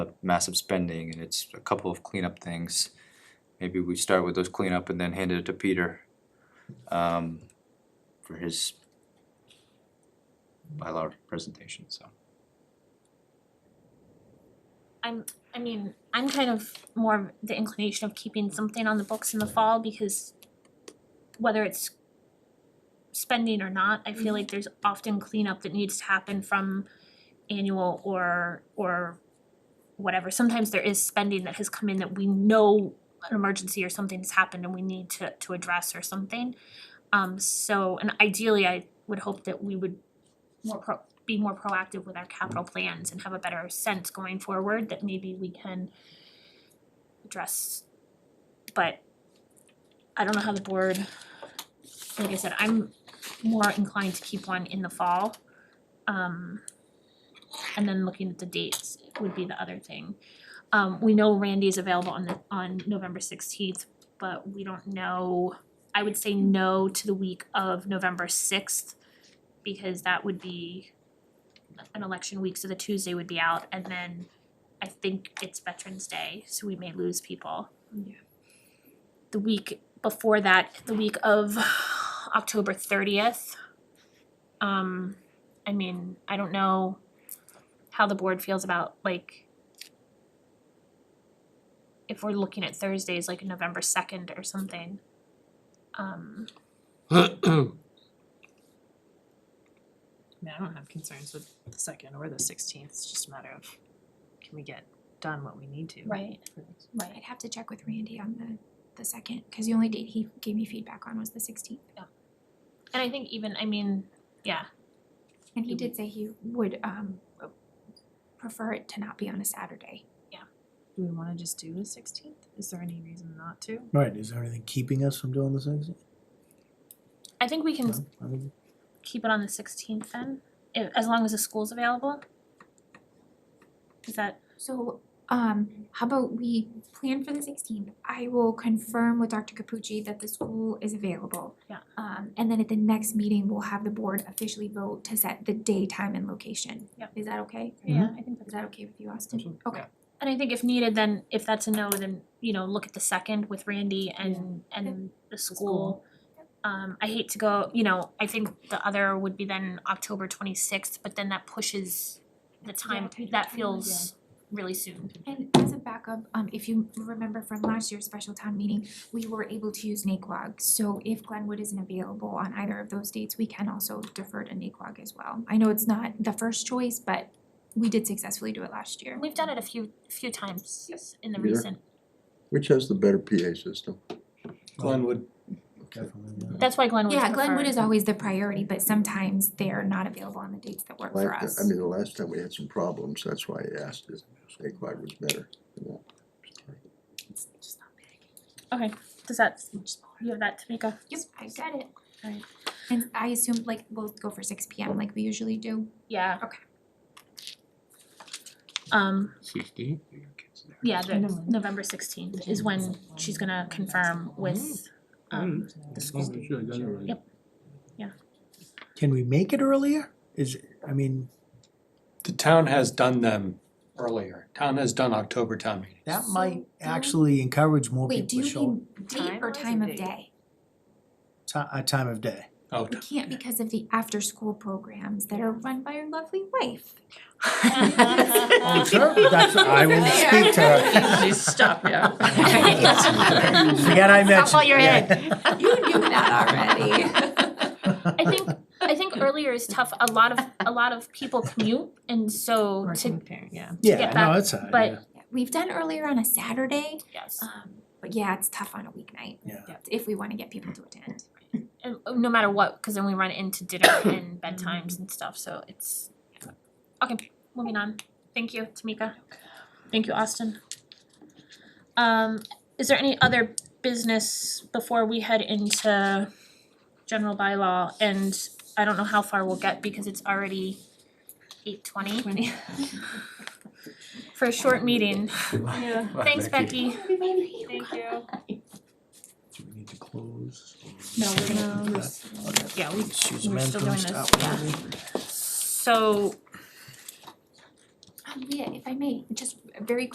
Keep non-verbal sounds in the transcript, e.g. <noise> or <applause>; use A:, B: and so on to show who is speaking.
A: massive spending and it's a couple of cleanup things. Maybe we start with those cleanup and then hand it to Peter um for his bylaw presentation, so.
B: I mean, I'm kind of more of the inclination of keeping something on the books in the fall because whether it's spending or not, I feel like there's often cleanup that needs to happen from annual or or whatever. Sometimes there is spending that has come in that we know an emergency or something's happened and we need to to address or something. Um so and ideally I would hope that we would more pro- be more proactive with our capital plans and have a better sense going forward that maybe we can address. But I don't know how the board, like I said, I'm more inclined to keep one in the fall. Um and then looking at the dates would be the other thing. Um we know Randy's available on the on November sixteenth, but we don't know, I would say no to the week of November sixth because that would be an election week, so the Tuesday would be out, and then I think it's Veterans Day, so we may lose people.
C: Yeah.
B: The week before that, the week of October thirtieth. Um, I mean, I don't know how the board feels about like if we're looking at Thursdays like November second or something. Um,
C: I mean, I don't have concerns with the second or the sixteenth, it's just a matter of, can we get done what we need to?
B: right,
C: for this?
B: right.
D: I'd have to check with Randy on the, the second, cause the only date he gave me feedback on was the sixteenth.
B: And I think even, I mean, yeah,
D: And he did say he would, um, prefer it to not be on a Saturday.
C: Do we wanna just do the sixteenth? Is there any reason not to?
E: Right, is there anything keeping us from doing the sixteenth?
B: I think we can
E: No, I mean,
B: keep it on the sixteenth then, i as long as the school's available? Is that,
D: So, um, how about we plan for the sixteenth? I will confirm with Dr. Capucci that the school is available.
B: Yeah.
D: Um, and then at the next meeting, we'll have the board officially vote to set the day, time, and location.
B: Yeah.
D: Is that okay?
B: yeah, I think
D: Is
B: that's,
D: that okay with you, Austin?
A: Absolutely.
D: Okay,
B: and I think if needed, then if that's a no, then, you know, look at the second with Randy and, and the school.
C: school.
B: Um, I hate to go, you know, I think the other would be then October twenty-sixth, but then that pushes the time,
D: Yeah,
B: that
D: yeah.
B: feels really soon.
D: and as a backup, um, if you remember from last year's special town meeting, we were able to use NaQuag. So if Glenwood isn't available on either of those dates, we can also defer to NaQuag as well. I know it's not the first choice, but we did successfully do it last year.
B: We've done it a few, few times in the
F: Yeah.
B: recent,
F: Which has the better PA system?
G: Glenwood.
E: Definitely, yeah.
B: that's why Glenwood
D: Yeah, Glenwood is always the priority, but sometimes they're not available on the dates that work
F: Like, uh,
D: for us.
F: I mean, the last time we had some problems, that's why I asked if Aquag was better. Yeah.
C: It's just not big,
B: Okay, does that,
C: it's much smaller.
B: you have that, Tamika?
D: Yep, I got it.
B: Alright.
D: And I assume like we'll go for six P M like we usually do.
B: Yeah.
D: Okay.
B: Um,
G: Sixteen?
B: Yeah, the
C: November.
B: November sixteenth is when she's gonna confirm with um the school. Yep.
E: Can we make it earlier? Is, I mean,
G: The town has done them earlier. Town has done October town meeting.
E: that
D: So
E: might
D: do we-
E: actually encourage more
D: Wait, do
E: people to
D: you
E: show,
D: mean date
C: Time-wise
D: or
C: or
D: time of
C: date?
D: day?
E: ti- a time of day.
G: Oh,
D: We can't because of the after-school programs that are run by your lovely wife.
B: Uh,
E: Oh, sure,
B: <laughs>
E: that's, I
C: <laughs>
E: will speak to her.
C: Please stop, yeah.
E: <laughs> Forget I mentioned.
B: while you're
D: <laughs>
E: yeah.
D: You knew that already.
B: I think I think earlier is tough. A lot of a lot of people commute and so
C: Working
B: to
C: parent, yeah.
E: Yeah,
B: get
E: no,
B: back,
E: it's, all right,
B: but-
E: yeah.
D: We've done earlier on a Saturday,
B: yes.
D: um, but yeah, it's tough on a weeknight.
E: Yeah.
C: Yeah.
D: If we wanna get people to attend.
B: And uh, no matter what, cause then we run into dinner and bedtimes and stuff, so it's Okay, moving on. Thank you, Tamika. Thank you, Austin. Um is there any other business before we head into general bylaw and I don't know how far we'll get because it's already eight twenty.
D: <laughs>
B: For a short meeting.
C: Yeah.
B: Thanks, Becky.
C: Thank you.
E: Do we need to close?
B: No, we're gonna-
E: Okay.
B: Yeah, we
E: Susan
B: we're still doing
E: Manton's
B: this,
E: out.
B: yeah. so
D: Um, Leah, if I may, just very